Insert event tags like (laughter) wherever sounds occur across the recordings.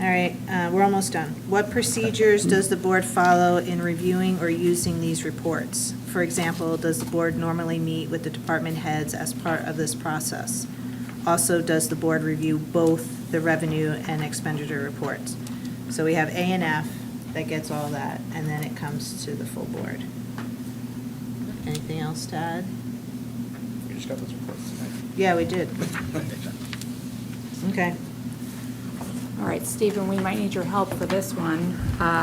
All right, uh, we're almost done. What procedures does the board follow in reviewing or using these reports? For example, does the board normally meet with the department heads as part of this process? Also, does the board review both the revenue and expenditure reports? So we have A and F that gets all that, and then it comes to the full board. Anything else to add? We just got those reports tonight. Yeah, we did. Okay. All right, Stephen, we might need your help for this (laughs) one. Uh,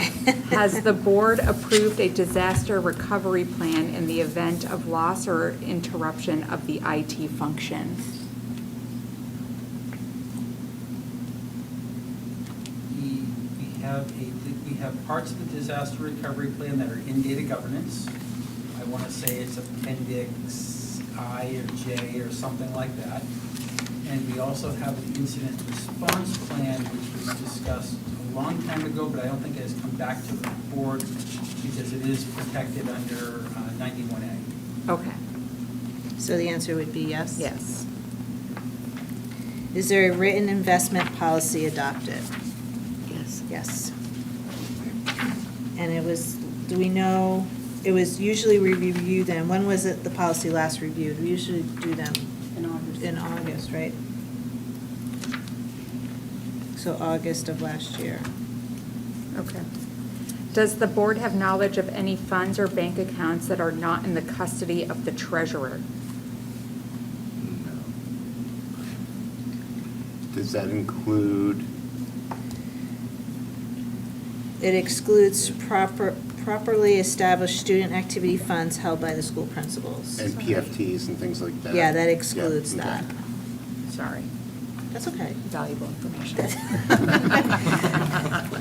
Has the board approved a disaster recovery plan in the event of loss or interruption of the IT function? We, we have a, we have parts of the disaster recovery plan that are in data governance. I want to say it's appendix I or J or something like that. And we also have an incident response plan, which was discussed a long time ago, but I don't think it has come back to the board because it is protected under uh, ninety-one A. Okay. So the answer would be yes? Yes. Is there a written investment policy adopted? Yes. Yes. And it was, do we know, it was usually we review them, when was it the policy last reviewed? We usually do them In August. in August, right? So August of last year. Okay. Does the board have knowledge of any funds or bank accounts that are not in the custody of the treasurer? Does that include, It excludes proper, properly established student activity funds held by the school principals. and PFTs and things like that? Yeah, that excludes Yeah, that. okay. Sorry, That's okay. valuable information. (laughs)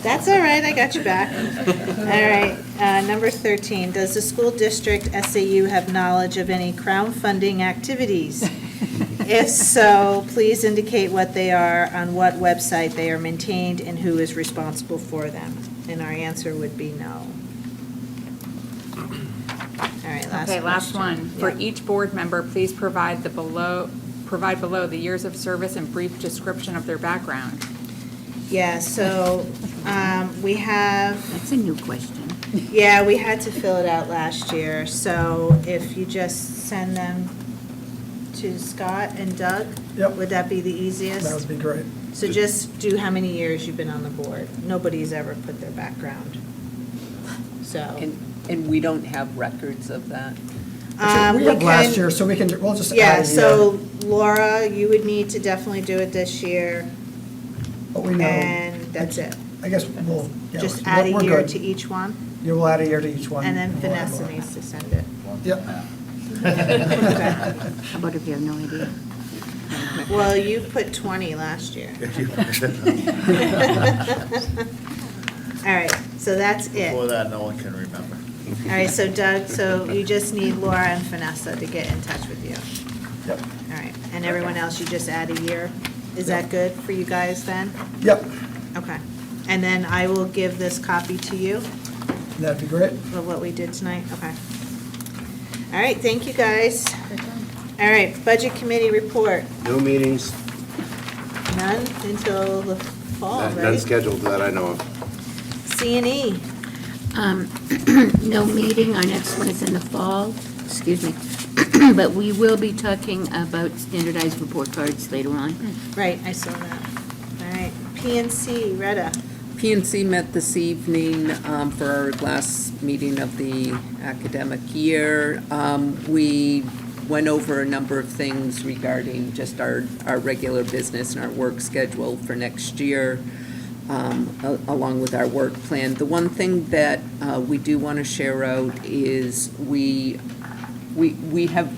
That's all right, I got you (laughs) back. All right, uh, number 13, does the school district SAU have knowledge of any crowdfunding activities? (laughs) If so, please indicate what they are, on what website they are maintained, and who is responsible for them. And our answer would be no. All right, last Okay, last one. question. For Yeah. each board member, please provide the below, provide below the years of service and brief description of their background. Yeah, so um, we have That's a new question. Yeah, we had to fill it out last year, so if you just send them to Scott and Doug? Yep. Would that be the easiest? Um, That would be great. So just do how many years you've been on the board. Nobody's ever put their background. So, And, and we don't have records of that? Um, Actually, We we have last can- year, so we can, we'll just add a yeah, year. so Laura, you would need to definitely do it this year, But we know. and that's it. I guess we'll, yeah. Just we're- add we're a year good. to each one, Yeah, we'll add a year to each one. and then we'll add Vanessa more. needs to send it. (laughs) Yep. (laughs) How about if you have no idea? Well, you put 20 last (laughs) year. (laughs) All right, so that's it. Before All that, no one can remember. right, so Doug, so you just need Laura and Vanessa to get in touch with you. Yep, All right, and everyone else, you just add a year? Is that good for you guys then? yep, Okay. And then I will give this copy to you that'd be great. of what we did tonight, okay. All right, thank you, guys. All right, Budget Committee report, No meetings, none until the fall, none none right? scheduled that I know of. C and E. Um, (clears throat) No meeting, our next one is in the fall, excuse me. (clears throat) But we will be talking about standardized report cards later on. Right, I saw that. All right, PNC, Retta. PNC met this evening um, for our last meeting of the academic year. Um, We went over a number of things regarding just our, our regular business and our work schedule for next year, um, a- along with our work plan. The one thing that uh, we do want to share out is we, we, we have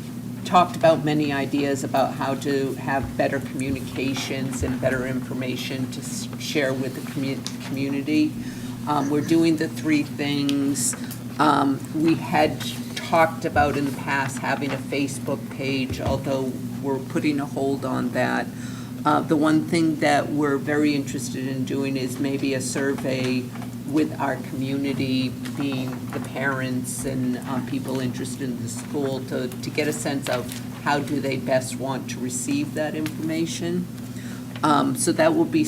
talked about many ideas about how to have better communications and better information to s- share with the commu- community. Um, We're doing the three things. Um, We had talked about in the past having a Facebook page, although we're putting a hold on that. Uh, The one thing that we're very interested in doing is maybe a survey with our community, being the parents and um, people interested in the school, to, to get a sense of how do they best want to receive that information. Um, So that will be